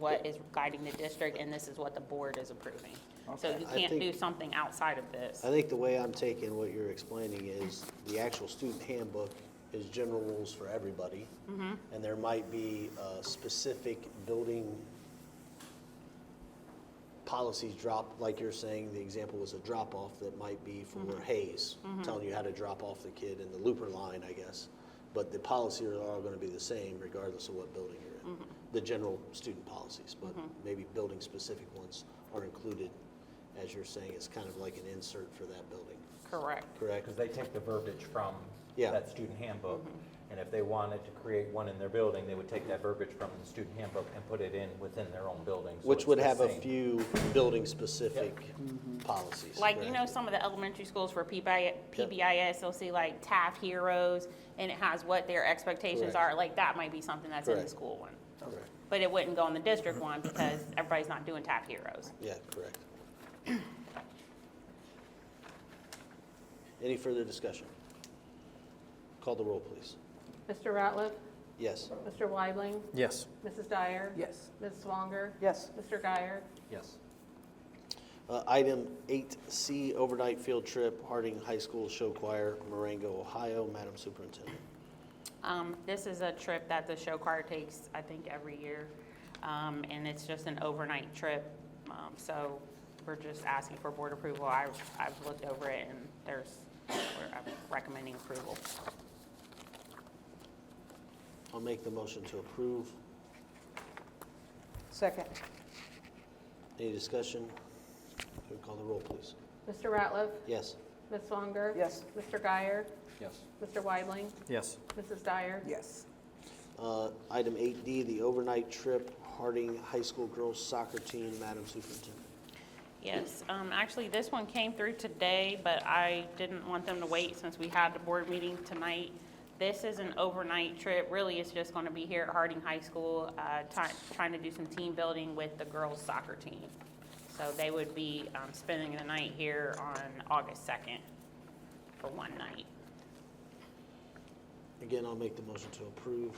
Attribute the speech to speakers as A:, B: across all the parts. A: what is guiding the district, and this is what the board is approving. So you
B: I
A: can't
B: think-
A: do something outside of this.
B: I think the way I'm taking what you're explaining is the actual student handbook is general rules for everybody. And there might be uh, specific building policies drop, like you're saying, the example was a drop-off that might be for Hayes, telling you how to drop off the kid in the looper line, I guess. But the policies are all going to be the same regardless of what building you're in. The general student policies, but maybe building-specific ones are included, as you're saying, it's kind of like an insert for that building,
A: Correct.
B: correct?
C: Because they take the verbiage from
B: Yeah.
C: that student handbook. And if they wanted to create one in their building, they would take that verbiage from the student handbook and put it in within their own building. so
B: Which
C: it's
B: would
C: the
B: have a
C: same. Mm-hmm.
B: few building-specific policies.
A: Like, you know,
B: correct?
A: some of the elementary schools for PBI PBIS, they'll see like TAF heroes, and it has what their expectations
B: Correct.
A: are, like, that might be something that's in the
B: Correct.
A: school one.
B: Correct.
A: But it wouldn't go in the district one, because everybody's not doing TAF heroes.
B: Yeah, correct. Any further discussion? Call the roll, please.
D: Mr. Ratliff?
B: Yes.
D: Mr. Weibling?
E: Yes.
D: Mrs. Dyer?
E: Yes.
D: Ms. Swanger?
E: Yes.
D: Mr. Guyer?
C: Yes.
B: Uh, Item 8C, overnight field trip, Harding High School Show Choir, Marengo, Ohio. Madam Superintendent.
A: Um, this is a trip that the show choir takes, I think, every year, um, and it's just an overnight trip. Um, so we're just asking for board approval. I, I've looked over it and there's, we're I'm recommending approval.
B: I'll make the motion to approve.
E: Second.
B: Any discussion? Can we Call the roll, please.
D: Mr. Ratliff?
B: Yes.
D: Ms. Swanger?
E: Yes.
D: Mr. Guyer?
C: Yes.
D: Mr. Weibling?
E: Yes.
D: Mrs. Dyer?
E: Yes.
B: Uh, Item 8D, the overnight trip, Harding High School Girls Soccer Team. Madam Superintendent.
A: Yes, um, actually, this one came through today, but I didn't want them to wait since we had the board meeting tonight. This is an overnight trip, really, it's just gonna be here at Harding High School, uh, ti- trying to do some team building with the girls soccer team. So they would be, um, spending the night here on August second for one night.
B: Again, I'll make the motion to approve.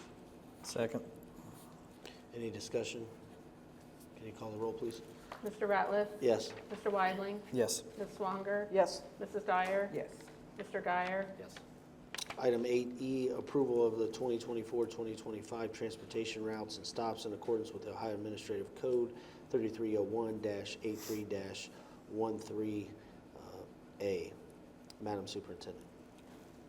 E: Second.
B: Any discussion? Can you call the roll, please?
D: Mr. Ratliff?
B: Yes.
D: Mr. Weibling?
E: Yes.
D: Ms. Swanger?
E: Yes.
D: Mrs. Dyer?
E: Yes.
D: Mr. Guyer?
C: Yes.
B: Item 8E, approval of the 2024-2025 transportation routes and stops in accordance with the Ohio Administrative Code oh 3301-83-13A. uh, Madam Superintendent.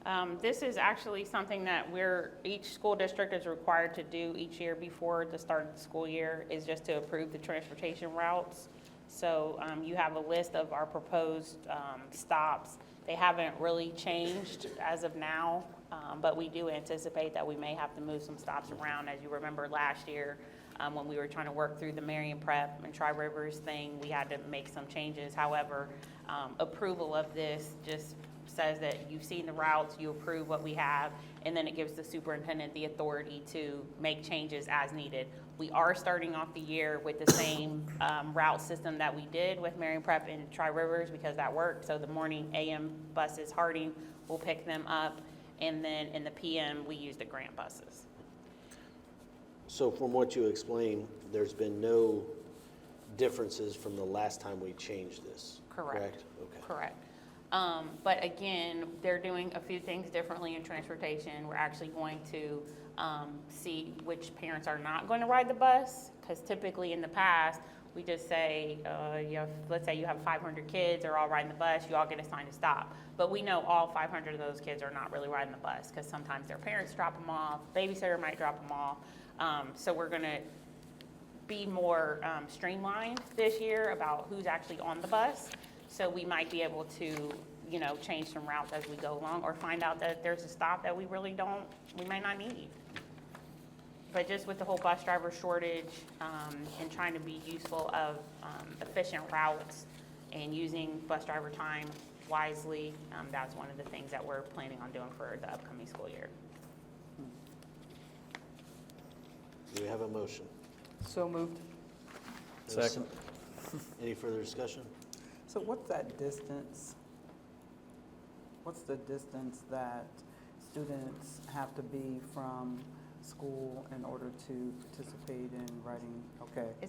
A: Um, This is actually something that we're, each school district is required to do each year before the start of the school year, is just to approve the transportation routes. So um, you have a list of our proposed um, stops. They haven't really changed as of now, um, but we do anticipate that we may have to move some stops around. As you remember last year, um, when we were trying to work through the Marion Prep and Tri Rivers thing, we had to make some changes. However, um, approval of this just says that you've seen the routes, you approve what we have, and then it gives the superintendent the authority to make changes as needed. We are starting off the year with the same um, route system that we did with Marion Prep and Tri Rivers because that worked. So the morning AM buses, Harding will pick them up, and then in the PM, we use the grant buses.
B: So from what you explained, there's been no differences from the last time we changed this?
A: Correct.
B: Okay.
A: Correct. Um, but again, they're doing a few things differently in transportation. We're actually going to, um, see which parents are not going to ride the bus. Cause typically in the past, we just say, uh, you have, let's say you have five hundred kids, they're all riding the bus, you all get assigned a stop. But we know all five hundred of those kids are not really riding the bus, cause sometimes their parents drop them off, babysitter might drop them off. Um, so we're gonna be more um, streamlined this year about who's actually on the bus. So we might be able to, you know, change some routes as we go along or find out that there's a stop that we really don't, we might not need. But just with the whole bus driver shortage um, and trying to be useful of um, efficient routes and using bus driver time wisely, um, that's one of the things that we're planning on doing for the upcoming school year.
B: Do we have a motion?
F: So moved.
E: Second.
B: Any further discussion?
F: So what's that distance? What's the distance that students have to be from school in order to participate in writing, okay.